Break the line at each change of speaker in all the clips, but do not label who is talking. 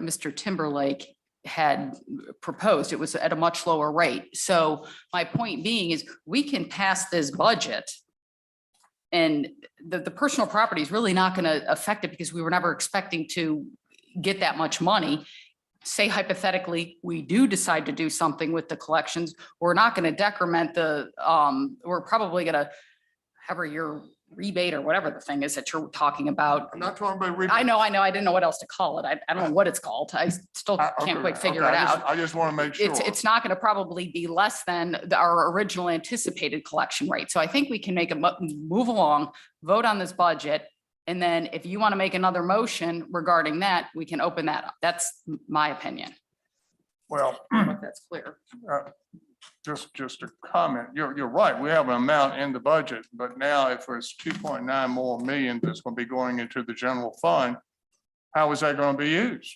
Mr. Timberlake had proposed. It was at a much lower rate. So my point being is we can pass this budget. And the, the personal property is really not going to affect it because we were never expecting to get that much money. Say hypothetically, we do decide to do something with the collections, we're not going to decrement the, um, we're probably going to however your rebate or whatever the thing is that you're talking about
I'm not talking about. rebate.
I know, I know. I didn't know what else to call it. I, I don't know what it's called. I still
I- Uh, okay,
can't quite figure
okay,
it
I just-
out.
I just want to make sure.
It's, it's not going to probably be less than the- our original anticipated collection rate. So I think we can make a mo- move along, vote on this budget. And then if you want to make another motion regarding that, we can open that up. That's my opinion.
Well,
I don't know if That's clear.
just, just a comment. You're, you're right. We have an amount in the budget, but now if it's two point nine more million that's going to be going into the general fund, how is that going to be used?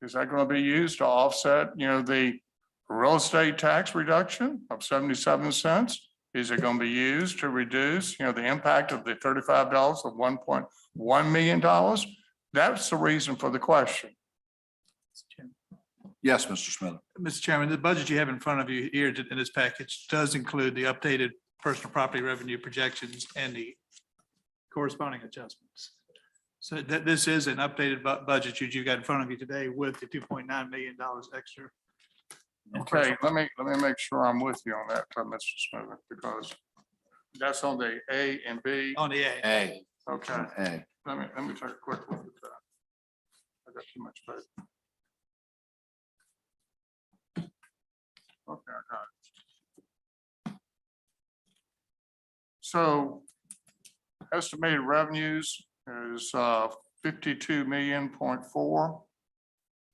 Is that going to be used to offset, you know, the real estate tax reduction of seventy-seven cents? Is it going to be used to reduce, you know, the impact of the thirty-five dollars of one point one million dollars? That's the reason for the question.
Yes, Mr. Smith.
Mr. Chairman, the budget you have in front of you here in this package does include the updated personal property revenue projections and the corresponding adjustments. So that this is an updated bu- budget that you've got in front of you today with the two point nine million dollars extra.
Okay, let me, let me make sure I'm with you on that, uh, Mr. Smith, because that's on the A and B.
On the A,
A.
Okay,
A.
let me, let me take a quick look at that. I got too much paper. Okay, I got it. So estimated revenues is uh, fifty-two million point four.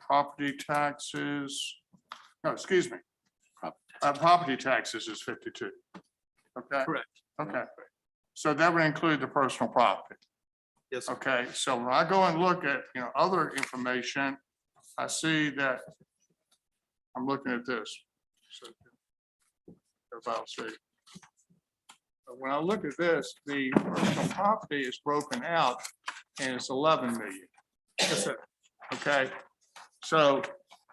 Property taxes, no, excuse me.
Prop-
Uh, Property taxes is fifty-two. Okay?
Correct.
Okay, so that would include the personal property.
yes, sir.
Okay, so when I go and look at, you know, other information, I see that I'm looking at this. So, if I'll see. But When I look at this, the personal property is broken out and it's eleven million. Okay, so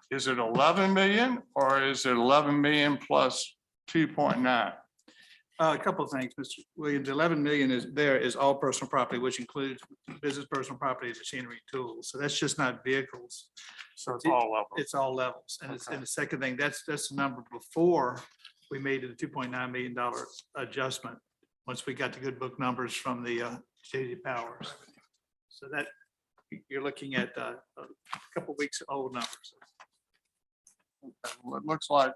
is it eleven million or is it eleven million plus two point nine?
Uh, a couple of things, Mr. Williams, eleven million is, there is all personal property, which includes business personal property, machinery, tools. So that's just not vehicles.
So it's all of them.
It's all levels. And it's,
Okay.
and the second thing, that's, that's the number before we made the two point nine million dollar adjustment. Once we got the good book numbers from the uh, JD Powers. So that, you're looking at uh, a couple weeks old numbers.
Well, It looks like,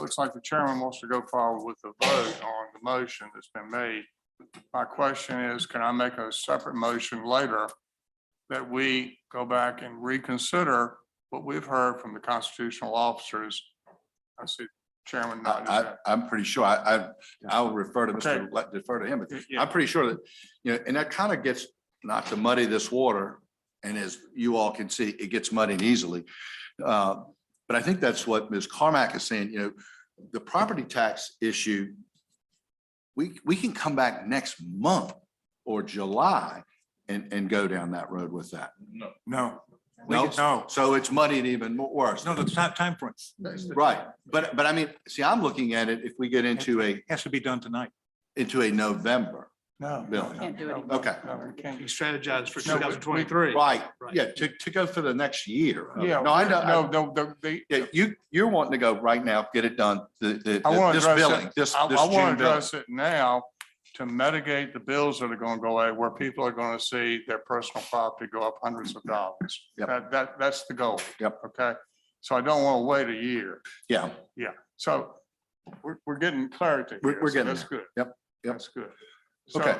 looks like the chairman wants to go forward with the vote on the motion that's been made. My question is, can I make a separate motion later that we go back and reconsider what we've heard from the constitutional officers? I see Chairman nodding. his
I,
head.
I, am pretty sure. I, I, I'll refer to
Okay.
Mr. Let, defer to him. but
Yeah.
I'm pretty sure that, you know, and that kind of gets, not to muddy this water. And as you all can see, it gets muddied easily. Uh, But I think that's what Ms. Carmack is saying, you know, the property tax issue, we, we can come back next month or July and, and go down that road with that.
No,
No,
no.
so it's muddied even more worse.
no, the time, timeframe
Right, but, but I mean, see, I'm looking at it, if we get into a,
has to be done tonight.
into a November
No.
bill.
Can't do it.
Okay,
No, we can't.
You strategize for two
No, we- we-
thousand twenty-three.
right,
Right.
yeah, to, to go for the next year.
Yeah.
No, I know, I-
No, no, the- the-
yeah, you, you're wanting to go right now, get it done, the,
I
the,
wanna
this
address
billing,
it.
this,
I,
this
I
June
want to
billing.
address it now to mitigate the bills that are going to go away, where people are going to see their personal property go up hundreds of dollars.
Yep.
That, that, that's the goal.
Yep.
Okay, so I don't want to wait a year.
Yeah,
So we're, we're getting clarity.
We're-
here,
we're
so
getting
That's good.
Yep, yep.
That's good. So-
okay.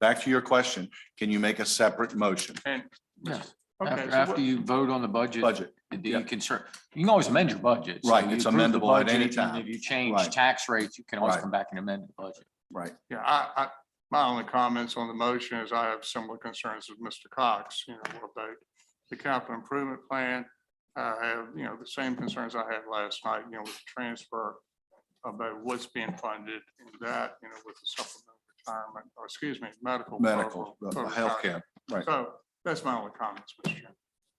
Back to your question, can you make a separate motion,
Yeah.
Okay,
After,
so what-
after you vote on the budget,
budget?
you can cer, you can always amend your budget. So
Right,
you
it's
approve the
amendable at any
budget, and
time.
If you change
Right.
tax rates, you can always
Right.
come back and amend the budget.
Right,
yeah, I, I, my only comments on the motion is I have similar concerns with Mr. Cox, you know, about the capital improvement plan. I have, you know, the same concerns I had last night, you know, with the transfer about what's being funded and that, you know, with the supplemental retirement, or excuse me, medical.
medical, uh,
program,
healthcare,
So That's my only comments, Mr. Chairman.